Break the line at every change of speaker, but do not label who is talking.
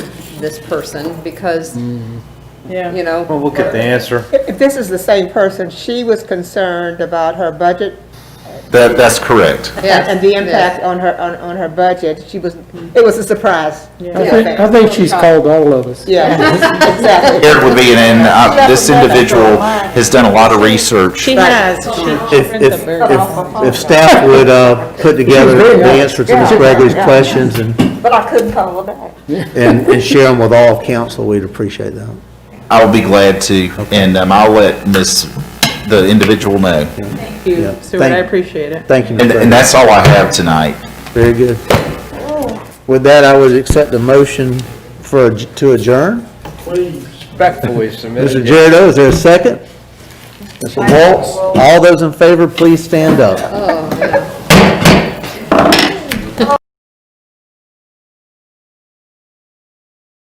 this person because, you
Yeah.
know.
Well, we'll get the answer.
If this is the same person, she was concerned about her budget
That, that's correct.
Yes,
and and the
yes.
impact on her, on, on her budget. She was, it was a surprise.
I think, I think she's called all of us.
Yeah, exactly.
Here would be, and uh, this individual has done a lot of research.
She has.
If, if, if if staff would, uh, put together the answer to Ms. Gregory's questions and,
But I couldn't call her back.
and and share them with all of council, we'd appreciate that.
I'll be glad to, and um, I'll let Miss the individual know.
Thank you,
Yeah, Stuart, I thank-
appreciate it.
Thank you,
And,
Ms.
and
Gregory.
that's all I have tonight.
Very good. With that, I would accept a motion for, adj- to adjourn.
Respectfully submitted.
Mr. Jared O, is there a second? Mr. Waltz, all those in favor, please stand up.
Oh, yeah.